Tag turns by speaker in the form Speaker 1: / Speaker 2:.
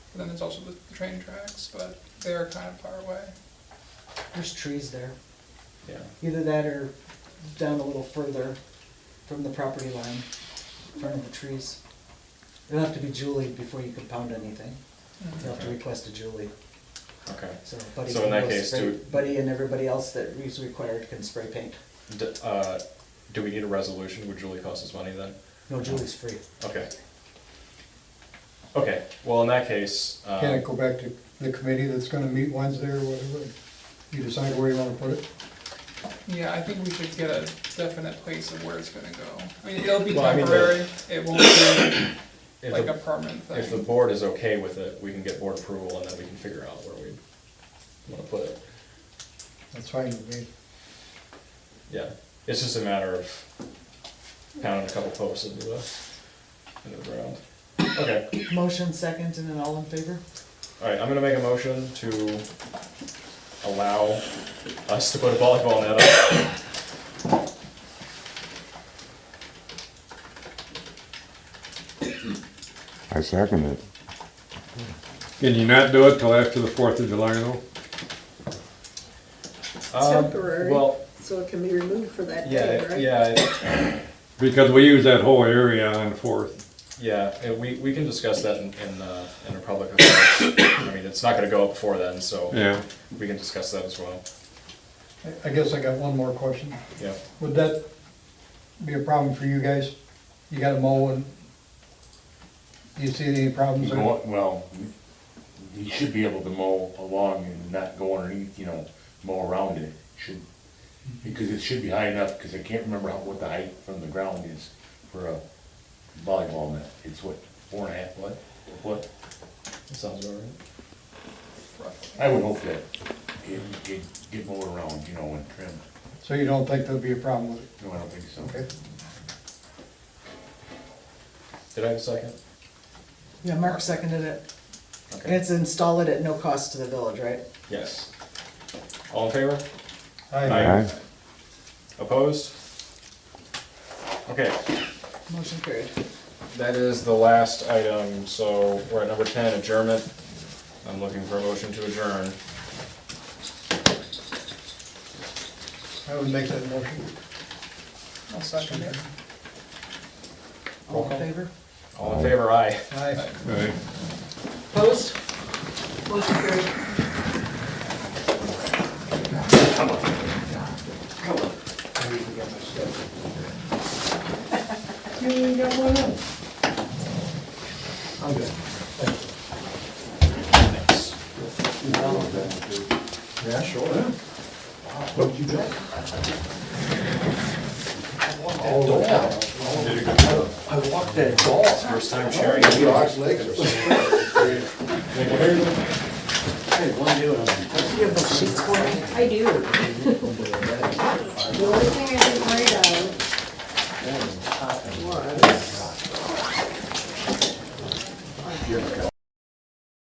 Speaker 1: But then there's also the, the train tracks, but they're kind of far away.
Speaker 2: There's trees there.
Speaker 3: Yeah.
Speaker 2: Either that or down a little further from the property line, in front of the trees. It'll have to be Julie before you can pound anything. You'll have to
Speaker 3: Okay.
Speaker 2: request a Julie,
Speaker 3: Okay.
Speaker 2: so Buddy
Speaker 3: So
Speaker 2: can
Speaker 3: in that
Speaker 2: go
Speaker 3: case,
Speaker 2: spray,
Speaker 3: do-
Speaker 2: Buddy and everybody else that is required can spray paint.
Speaker 3: D- uh, do we need a resolution? Would Julie cost us money then?
Speaker 2: No, Julie's free.
Speaker 3: Okay. Okay, well, in that case, uh,
Speaker 4: Can it go back to the committee that's gonna meet Wednesday or whatever? You decide where you wanna put it?
Speaker 1: Yeah, I think we should get a definite place of where it's gonna go. I mean, it'll be
Speaker 3: Well, I mean, the-
Speaker 1: temporary, it won't be
Speaker 3: if
Speaker 1: like a
Speaker 3: the,
Speaker 1: permanent
Speaker 3: if the
Speaker 1: thing.
Speaker 3: board is okay with it, we can get board approval and then we can figure out where we wanna put it.
Speaker 4: That's fine with me.
Speaker 3: Yeah, it's just a matter of pounding a couple posts into the, into the ground. Okay,
Speaker 2: Motion second and then all in favor?
Speaker 3: alright, I'm gonna make a motion to allow us to put a volleyball net up.
Speaker 5: I second it.
Speaker 6: Can you not do it till after the Fourth of July though?
Speaker 3: Um,
Speaker 7: Temporary.
Speaker 3: Well,
Speaker 7: So it can be removed for that
Speaker 3: yeah,
Speaker 7: day,
Speaker 3: it-
Speaker 7: right?
Speaker 3: yeah, it-
Speaker 6: Because we use that whole area on the Fourth.
Speaker 3: yeah, and we, we can discuss that in, in, uh, in a public affairs. I mean, it's not gonna go up before then, so
Speaker 6: Yeah,
Speaker 3: we can discuss that as well,
Speaker 4: I- I guess I got one more question.
Speaker 3: yeah.
Speaker 4: Would that be a problem for you guys? You gotta mow and, do you see any problems? there?
Speaker 8: Go- Well, you should be able to mow along and not go underneath, you know, mow around it, should, because it should be high enough, because I can't remember how, what the height from the ground is for a volleyball net, it's what, four and a half foot, a foot?
Speaker 3: That Sounds about right.
Speaker 8: I would hope that it, it get mowed around, you know, and trimmed,
Speaker 4: So you don't think there'll be a problem with it?
Speaker 8: no, I don't think so.
Speaker 4: Okay.
Speaker 3: Did I have a second?
Speaker 2: Yeah, Mark seconded it. And
Speaker 3: Okay,
Speaker 2: it's install it at no cost to the village, right?
Speaker 3: yes. All in favor?
Speaker 4: I,
Speaker 5: Aye.
Speaker 3: Opposed? Okay,
Speaker 2: Motion carried.
Speaker 3: that is the last item, so we're at number ten, adjournment. I'm looking for a motion to adjourn.
Speaker 4: I would make that motion.
Speaker 1: I'll second it.
Speaker 2: All in favor?
Speaker 3: All in favor, aye.
Speaker 4: Aye.
Speaker 6: right.
Speaker 2: Opposed?
Speaker 7: Motion carried.
Speaker 4: I'm good.
Speaker 3: Thanks.
Speaker 4: Yeah, sure. What would you do?
Speaker 3: First time sharing.
Speaker 4: Lost legs or something.